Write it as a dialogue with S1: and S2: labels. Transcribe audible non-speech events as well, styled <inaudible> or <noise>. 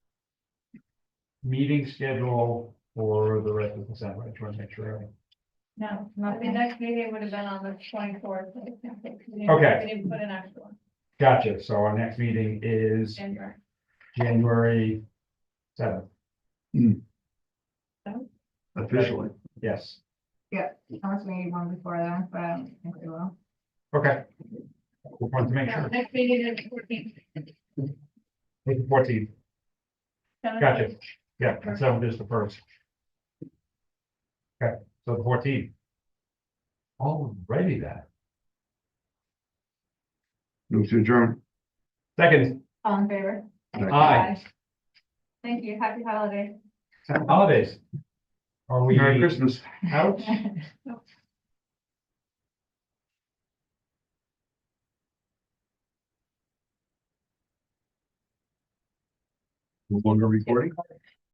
S1: meeting schedule for the rest of December, I just want to make sure.
S2: No, not the next meeting would have been on the twenty <laughs> fourth.
S1: Okay.
S2: We didn't put an actual one,
S1: Gotcha, so our next meeting is
S2: January.
S1: January seventh,
S3: officially.
S1: yes,
S4: Unless we need one before then, but I don't think we will.
S1: okay. Just wanted to make
S2: No,
S1: sure,
S2: Next meeting is fourteen.
S1: April fourteenth, gotcha, yeah, and seventh is the first. Okay, so the fourteenth. Already that,
S3: Move to adjourn.
S1: second,
S2: All in favor?
S3: Uh,
S1: aye,
S2: Thank you. Happy holidays. <laughs>
S1: holidays. Are we
S3: Merry Christmas.
S1: out?
S3: No Longer recording?